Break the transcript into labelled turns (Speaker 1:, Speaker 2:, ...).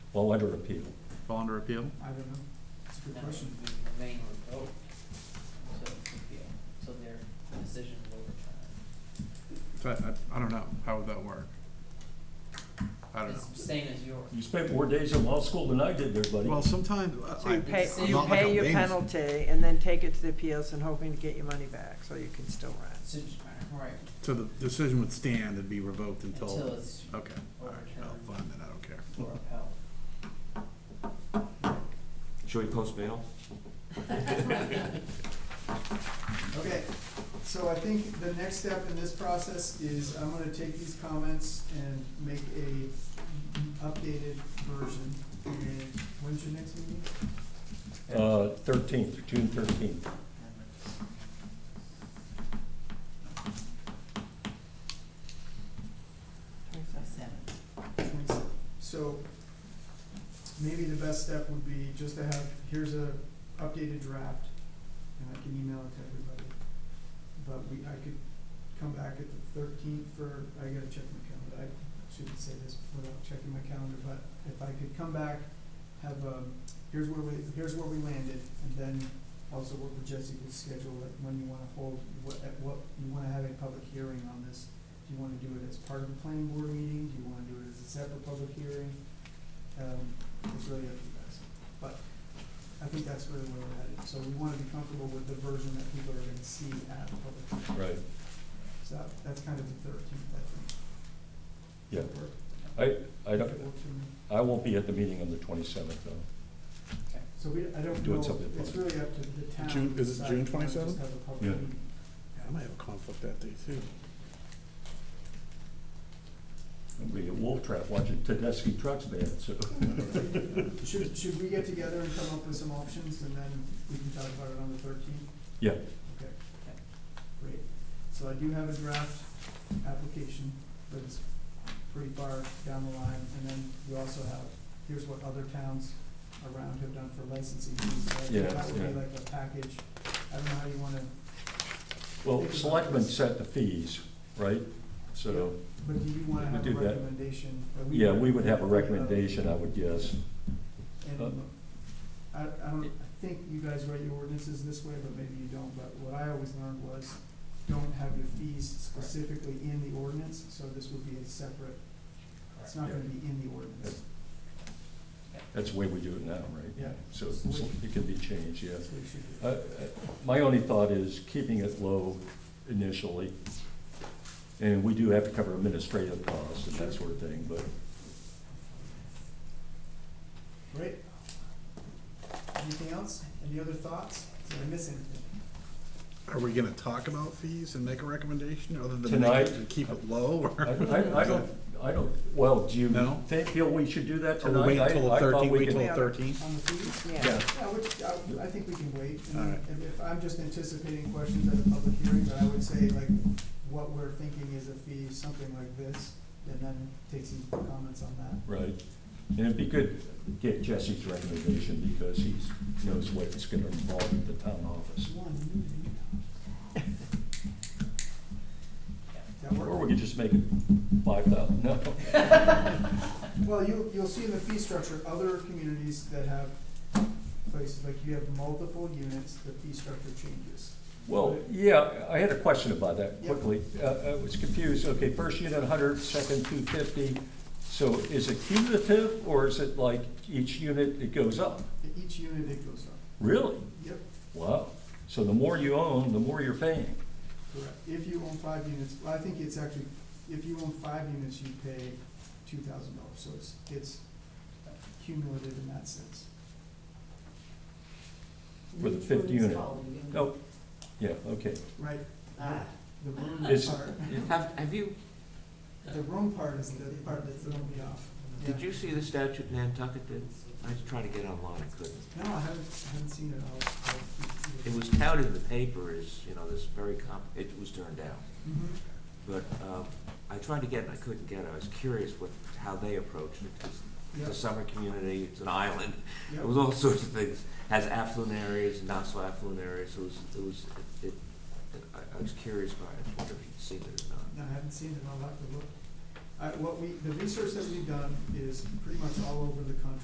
Speaker 1: fall under appeal?
Speaker 2: fall under appeal?
Speaker 3: I don't know, that's a good
Speaker 4: Then it
Speaker 3: question.
Speaker 4: would remain revoked, oh, so it's appeal, so their decision will return.
Speaker 2: So I, I- I don't know, how would that work? I don't
Speaker 4: It's
Speaker 2: know.
Speaker 4: the same as yours.
Speaker 1: You spent more days in law school than I did there, buddy.
Speaker 2: Well, sometimes, uh, I-
Speaker 5: So you pay,
Speaker 4: it's
Speaker 2: I'm
Speaker 5: you
Speaker 2: not like
Speaker 5: pay
Speaker 2: a
Speaker 5: your
Speaker 2: layman.
Speaker 5: penalty and then take it to the appeals and hoping to get your money back, so you can still rent.
Speaker 4: So, right,
Speaker 2: So the decision would stand and be revoked
Speaker 4: until
Speaker 2: until,
Speaker 4: it's
Speaker 2: okay, all right, no, fine, then I don't care.
Speaker 4: or upheld.
Speaker 6: Should we post bail?
Speaker 3: Okay, so I think the next step in this process is I'm gonna take these comments and make a updated version. And when's your next meeting?
Speaker 1: Uh, thirteenth, June thirteenth.
Speaker 4: Seven.
Speaker 3: So maybe the best step would be just to have, here's a updated draft, and I can email it to everybody. But we, I could come back at the thirteenth for, I gotta check my calendar, I shouldn't say this without checking my calendar, but if I could come back, have a, here's where we, here's where we landed, and then also work with Jesse to schedule like when you wanna hold, what, at what, you wanna have a public hearing on this. Do you wanna do it as part of the planning board meeting, do you wanna do it as a separate public hearing? Um, it's really up to you guys, but I think that's really where we're headed, so we wanna be comfortable with the version that people are gonna see at the public hearing.
Speaker 1: Right.
Speaker 3: So that- that's kind of the thirteenth, I think.
Speaker 1: Yeah.
Speaker 3: Work.
Speaker 1: I, I
Speaker 3: If it
Speaker 1: don't,
Speaker 3: works for me.
Speaker 1: I won't be at the meeting on the twenty-seventh, though.
Speaker 3: So we, I don't
Speaker 1: Do it
Speaker 3: know,
Speaker 1: something
Speaker 3: it's
Speaker 1: fun.
Speaker 3: really up to the town.
Speaker 2: June- is it
Speaker 3: to decide
Speaker 2: June
Speaker 3: if they wanna just
Speaker 2: 27th?
Speaker 3: have a public
Speaker 1: Yeah.
Speaker 3: meeting.
Speaker 2: I might have a conflict that day too.
Speaker 1: I'll be at Wolf Trap watching Tedeschi Trucks Band, so.
Speaker 3: Should, should we get together and come up with some options and then we can talk about it on the thirteenth?
Speaker 1: Yeah.
Speaker 3: Okay, great. So I do have a draft application, but it's pretty far down the line. And then we also have, here's what other towns around have done for licensing. fees, right?
Speaker 1: Yeah,
Speaker 3: That would
Speaker 1: yeah.
Speaker 3: be like a package. I don't know how you wanna,
Speaker 1: Well, selectmen set the fees, right? So,
Speaker 3: but do you wanna
Speaker 1: We
Speaker 3: have a
Speaker 1: do that.
Speaker 3: recommendation? or
Speaker 1: yeah, we would have a recommendation, I would guess. Uh,
Speaker 3: And I, I don't, I think you guys write your ordinances this way, but maybe you don't, but what I always learned was, don't have your fees specifically in the ordinance, so this would be a separate, it's not gonna be in the ordinance.
Speaker 1: That's the way we do it now, right?
Speaker 3: Yeah.
Speaker 1: So it's- it can be changed, yeah.
Speaker 3: That's what you should do.
Speaker 1: Uh, uh, My only thought is keeping it low initially. And we do have to cover administrative costs and that sort of thing, but
Speaker 3: Great. Anything else? Any other thoughts? Did I miss anything?
Speaker 2: Are we gonna talk about fees and make a recommendation other than
Speaker 1: Tonight?
Speaker 2: make it, keep it low
Speaker 1: I,
Speaker 2: or?
Speaker 1: I- I don't, I don't, well, do you
Speaker 2: No?
Speaker 1: think, feel we should do that
Speaker 2: Or
Speaker 1: tonight?
Speaker 2: we wait
Speaker 1: I-
Speaker 2: until the
Speaker 1: I thought
Speaker 2: thirteenth,
Speaker 1: we
Speaker 2: wait till
Speaker 1: could-
Speaker 2: the thirteenth?
Speaker 3: On the fees?
Speaker 5: Yeah,
Speaker 1: Yeah,
Speaker 3: Yeah, which, I, I think we can wait,
Speaker 2: All
Speaker 3: and
Speaker 2: right.
Speaker 3: if- if, I'm just anticipating questions at a public hearing, but I would say like, what we're thinking is a fee, something like this, and then take some comments on that.
Speaker 1: right. And it'd be good to get Jesse's recommendation because he's, knows what it's gonna involve at the town office.
Speaker 3: One meeting. That
Speaker 1: Or
Speaker 3: work?
Speaker 1: we could just make it five thousand, no.
Speaker 3: Well, you, you'll see in the fee structure, other communities that have places, like you have multiple units, the fee structure changes.
Speaker 1: Well, yeah, I had a question about that
Speaker 3: Yeah.
Speaker 1: quickly. Uh, I was confused. Okay, first unit 100, second 250. So is it cumulative or is it like each unit it goes up?
Speaker 3: At Each unit, it goes up.
Speaker 1: Really?
Speaker 3: Yep,
Speaker 1: Wow. So the more you own, the more you're paying.
Speaker 3: correct. If you own five units, well, I think it's actually, if you own five units, you pay two thousand dollars, so it's, it's cumulative in that sense.
Speaker 1: For the fifth unit. No, yeah, okay.
Speaker 3: Right,
Speaker 4: Ah,
Speaker 3: the room
Speaker 1: It's-
Speaker 3: part,
Speaker 6: Have, have you,
Speaker 3: the room part is the part that's throwing me off. Yeah.
Speaker 6: did you see the statute in Nantucket? Did- I was trying to get online, I couldn't.
Speaker 3: No, I haven't, I haven't seen it, I'll, I'll.
Speaker 6: It was touted in the paper as, you know, this very comp, it was turned down.
Speaker 3: Mhm.
Speaker 6: But um, I tried to get it, and I couldn't get it. I was curious what, how they approached it. 'cause It's a
Speaker 3: Yep,
Speaker 6: summer community, it's an island.
Speaker 3: yep.
Speaker 6: It was all sorts of things, has affluent areas, not so affluent areas, so it was, it was, it, it- I, I was curious about it, I wonder if you'd seen it or not.
Speaker 3: No, I haven't seen it, I'll have to look. I, what we, the research that we've done is pretty much all over the country.